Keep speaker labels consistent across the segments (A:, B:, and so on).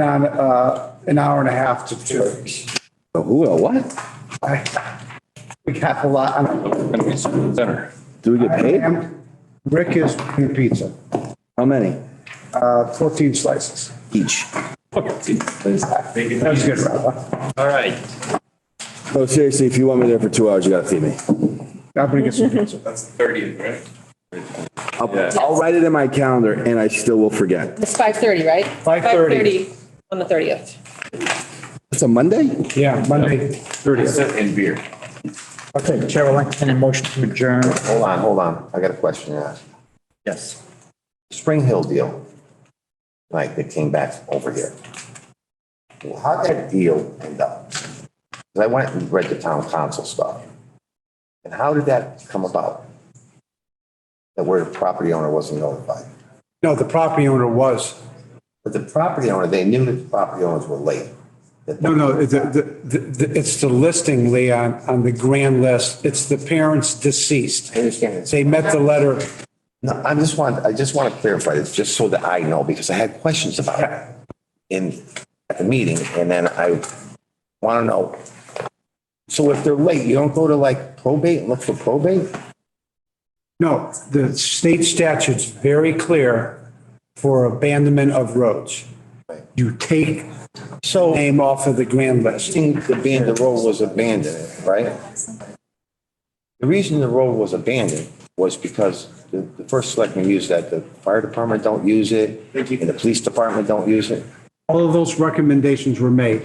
A: on uh, an hour and a half to two. hours.
B: Oh, Who, oh, what?
A: I- We got a lot. on-
C: Gonna be center.
B: Do we get paid?
A: And Rick is making pizza,
B: How many?
A: uh, 14 slices.
B: Each. Oh,
A: That was good, Rob.
C: All right.
B: No, seriously, if you want me there for two hours, you gotta feed me.
A: I'm gonna get some pizza.
C: That's the thirtieth, right?
B: I'll, I'll write it in my calendar and I still will forget.
D: It's five thirty, right?
A: 5:30.
D: On the thirtieth.
B: It's a Monday?
A: Yeah, Monday.
C: And beer.
A: Okay, Chair will entertain a motion to adjourn.
E: Hold on, hold on. I got a question to ask.
A: Yes.
E: Spring Hill deal, like that came back over here. Well, How'd that deal end up? 'Cause I went and read the town council stuff. And how did that come about? That where the property owner wasn't notified?
A: No, the property owner was.
E: But the property owner, they knew that the property owners were late. That-
A: No, no, the, the, the- it's the listing, Leon, on the grand list. It's the parents deceased.
E: I understand it's
A: They met the letter.
E: No, I just want, I just want to clarify this, just so that I know, because I had questions about it in, at the meeting, and then I want to know. So if they're late, you don't go to like probate and look for probate?
A: No, the state statute's very clear for abandonment of roads. You take
E: So
A: name off of the grand list.
E: the ban, the road was abandoned, right? The reason the road was abandoned was because the, the first selectman used that, the fire department don't use it, and the police department don't use it.
A: All of those recommendations were made.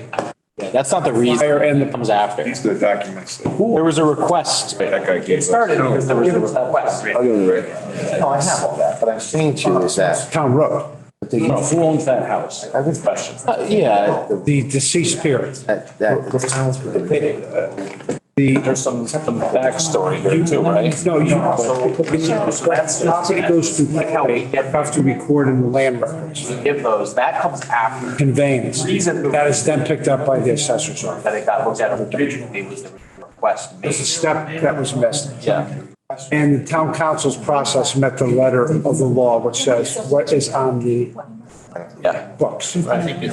F: That's not the reason
A: Fire and the
F: it comes after.
C: These are the documents that
F: There was a request.
C: that guy gave us.
F: Started because there was a request.
B: I'll go to the.
E: No, I have all that, but I'm saying to you is that.
A: town road,
F: Who owns that house?
E: I would question.
F: Uh, Yeah,
A: the deceased parents.
E: That, that sounds good.
F: there's some, some backstory here too, right?
A: No, you, property goes to county, you have to record in the land records,
F: Give those, that comes after.
A: conveyance.
F: Reason-
A: That is then picked up by the assessor's office.
F: That it got looked at originally was the request
A: It's a
F: made.
A: step that was missed.
F: Yeah.
A: And the town council's process met the letter of the law, which says what is on the
F: Yeah.
A: books.
F: But, I-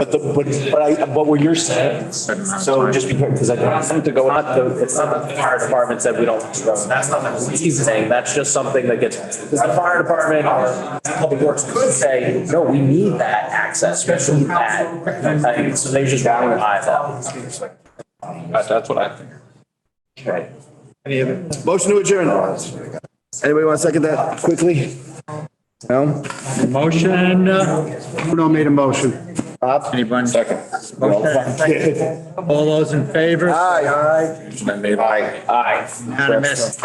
F: but, the- but, but I, but what you're saying, so just because, because I want them to go, not the, it's not that the fire department said we don't. want to go. That's not the police saying, that's just something that gets, because the fire department or public works could say, no, we need that access, especially that. And so they just down and high that.
C: That's what I think.
F: Right.
B: Motion to adjourn. Anybody want to second that quickly? No?
G: Motion,
A: Bruno made a motion.
G: anyone? Second. All those in favor?
B: Aye.
C: Aye.
G: Unanimous.